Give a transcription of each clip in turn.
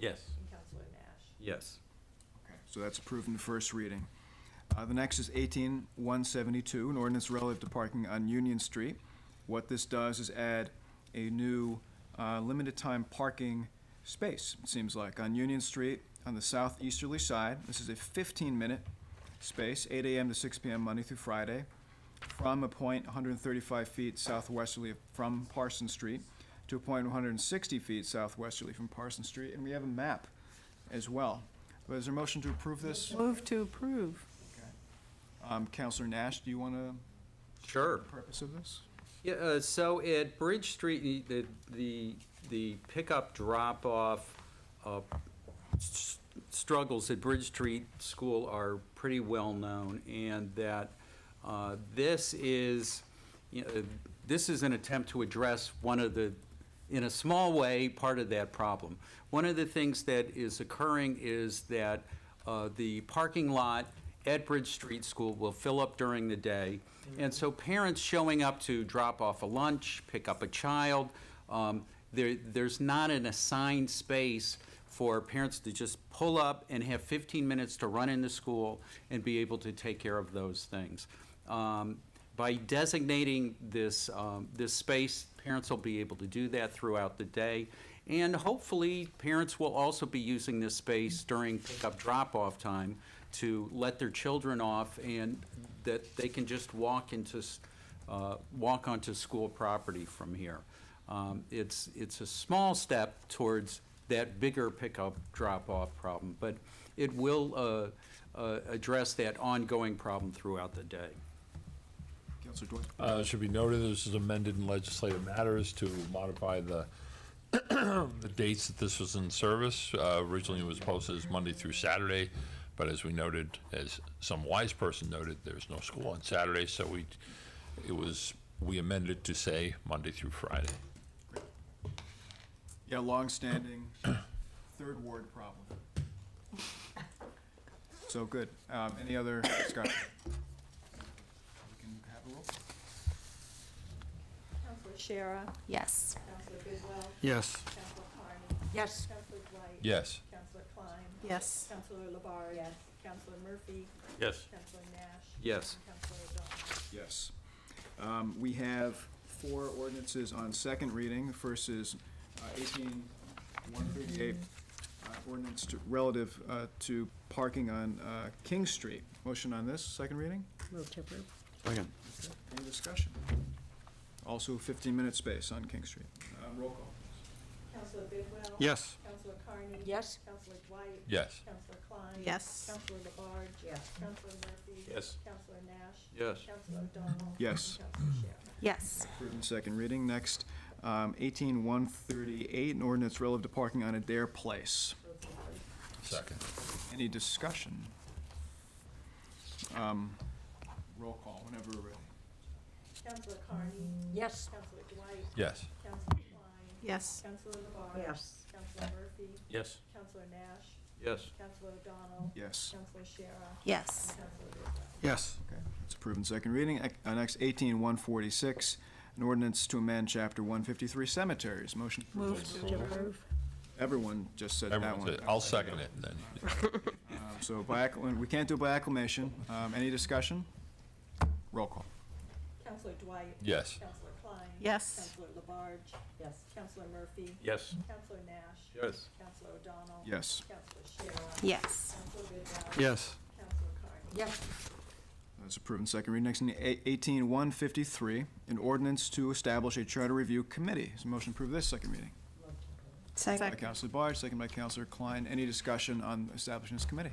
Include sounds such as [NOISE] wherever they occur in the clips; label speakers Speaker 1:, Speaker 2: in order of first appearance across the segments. Speaker 1: Yes.
Speaker 2: and Counselor Nash.
Speaker 1: Yes.
Speaker 3: Okay, So that's approved in the first reading. Uh, The next is 18172, an ordinance relative to parking on Union Street. What this does is add a new uh, limited-time parking space, it seems like, on Union Street on the southeasterly side. This is a 15-minute space, 8 AM to 6 PM, Monday through Friday, from a point 135 feet southwesterly from Parson Street to a point 160 feet southwesterly from Parson Street. And we have a map as well. But is there a motion to approve this?
Speaker 4: Move to approve.
Speaker 3: Um, Counselor Nash, do you want to?
Speaker 1: Sure.
Speaker 3: Purpose of this?
Speaker 1: Yeah, uh, so at Bridge Street, the, the, the pickup drop-off uh, s- struggles at Bridge Street School are pretty well-known, and that uh, this is, you know, this is an attempt to address one of the, in a small way, part of that problem. One of the things that is occurring is that uh, the parking lot at Bridge Street School will fill up during the day. And so parents showing up to drop off a lunch, pick up a child, um, there, there's not an assigned space for parents to just pull up and have 15 minutes to run into school and be able to take care of those things. Um, by designating this, um, this space, parents will be able to do that throughout the day. And hopefully, parents will also be using this space during pickup drop-off time to let their children off and that they can just walk into, s- uh, walk onto school property from here. Um, It's, it's a small step towards that bigger pickup drop-off problem, but it will uh, uh, address that ongoing problem throughout the day.
Speaker 3: Counselor Dwight?
Speaker 5: Uh, it should be noted, this is amended in legislative matters to modify the, [COUGHS] the dates that this was in service. Uh, originally it was posted as Monday through Saturday, but as we noted, as some wise person noted, there's no school on Saturday, so we, it was, we amended to say Monday through Friday.
Speaker 3: Yeah, longstanding third ward problem. So good. Um, Any other discussion? We can have a roll.
Speaker 2: Counselor Shara.
Speaker 4: Yes.
Speaker 2: Counselor Bidwell.
Speaker 6: Yes.
Speaker 2: Counselor Carney.
Speaker 4: Yes.
Speaker 2: Counselor Dwight.
Speaker 5: Yes.
Speaker 2: Counselor Klein.
Speaker 4: Yes.
Speaker 2: Counselor Labarge. Yes. Counselor Murphy.
Speaker 1: Yes.
Speaker 2: Counselor Nash.
Speaker 1: Yes.
Speaker 2: And Counselor O'Donnell.
Speaker 3: Yes. Um, We have four ordinances on second reading. The first is uh, 18138, uh, ordinance to- relative uh, to parking on uh, King Street. Motion on this, second reading?
Speaker 4: Move to approve.
Speaker 6: Second.
Speaker 3: Any discussion? Also 15-minute space on King Street. Uh, Roll call.
Speaker 2: Counselor Bidwell.
Speaker 6: Yes.
Speaker 2: Counselor Carney.
Speaker 4: Yes.
Speaker 2: Counselor Dwight.
Speaker 5: Yes.
Speaker 2: Counselor Klein.
Speaker 4: Yes.
Speaker 2: Counselor Labarge.
Speaker 4: Yes.
Speaker 2: Counselor Murphy.
Speaker 1: Yes.
Speaker 2: Counselor Nash.
Speaker 1: Yes.
Speaker 2: Counselor O'Donnell.
Speaker 3: Yes.
Speaker 2: And Counselor Shara.
Speaker 4: Yes.
Speaker 3: Approved in second reading. Next, um, 18138, an ordinance relative to parking on Adair Place.
Speaker 5: Second.
Speaker 3: Any discussion? Um, Roll call whenever we're ready.
Speaker 2: Counselor Carney.
Speaker 4: Yes.
Speaker 2: Counselor Dwight.
Speaker 5: Yes.
Speaker 2: Counselor Klein.
Speaker 4: Yes.
Speaker 2: Counselor Labarge.
Speaker 4: Yes.
Speaker 2: Counselor Murphy.
Speaker 1: Yes.
Speaker 2: Counselor Nash.
Speaker 1: Yes.
Speaker 2: Counselor O'Donnell.
Speaker 3: Yes.
Speaker 2: Counselor Shara.
Speaker 4: Yes.
Speaker 2: And Counselor Bidwell.
Speaker 6: Yes.
Speaker 3: Okay, It's approved in second reading. Ec- uh, Next, 18146, an ordinance to amend Chapter 153 cemeteries. Motion approved.
Speaker 4: Move to approve.
Speaker 3: Everyone just said that one.
Speaker 5: Everyone said, I'll second it then.
Speaker 3: Um, So by, accla- we can't do by acclamation. Um, Any discussion? Roll call.
Speaker 2: Counselor Dwight.
Speaker 5: Yes.
Speaker 2: Counselor Klein.
Speaker 4: Yes.
Speaker 2: Counselor Labarge.
Speaker 4: Yes.
Speaker 2: Counselor Murphy.
Speaker 1: Yes.
Speaker 2: Counselor Nash.
Speaker 1: Yes.
Speaker 2: Counselor O'Donnell.
Speaker 3: Yes.
Speaker 2: Counselor Shara.
Speaker 4: Yes.
Speaker 2: Counselor Bidwell.
Speaker 6: Yes.
Speaker 2: Counselor Carney.
Speaker 4: Yes.
Speaker 3: That's approved in second reading. Next, in eight- 18153, an ordinance to establish a charter review committee. Is the motion approved this second reading? By
Speaker 4: Second.
Speaker 3: Counselor Barge, second by Counselor Klein. Any discussion on establishing this committee?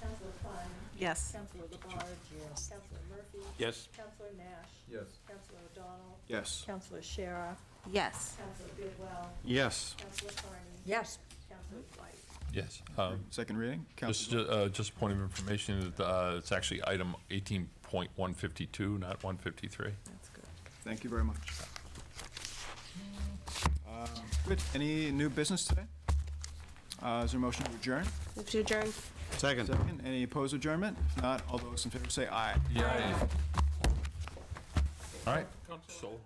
Speaker 2: Counselor Klein.
Speaker 4: Yes.
Speaker 2: Counselor Labarge. Yes. Counselor Murphy.
Speaker 1: Yes.
Speaker 2: Counselor Nash.
Speaker 1: Yes.
Speaker 2: Counselor O'Donnell.
Speaker 3: Yes.
Speaker 2: Counselor Shara.
Speaker 4: Yes.
Speaker 2: Counselor Bidwell.
Speaker 6: Yes.
Speaker 2: Counselor Carney.
Speaker 4: Yes.
Speaker 2: Counselor Dwight.
Speaker 5: Yes. Um,
Speaker 3: Second reading?
Speaker 5: Just,
Speaker 3: Counselor,
Speaker 5: uh, just a point of information, that, uh, it's actually item 18.152, not 153.
Speaker 4: That's good.
Speaker 3: thank you very much. Um, Good. Any new business today? Uh, Is there a motion to adjourn?
Speaker 4: Move to adjourn.
Speaker 6: Second.
Speaker 3: Second, any opposed adjournment? If not, all those in favor say aye.
Speaker 5: Yeah. All right. So.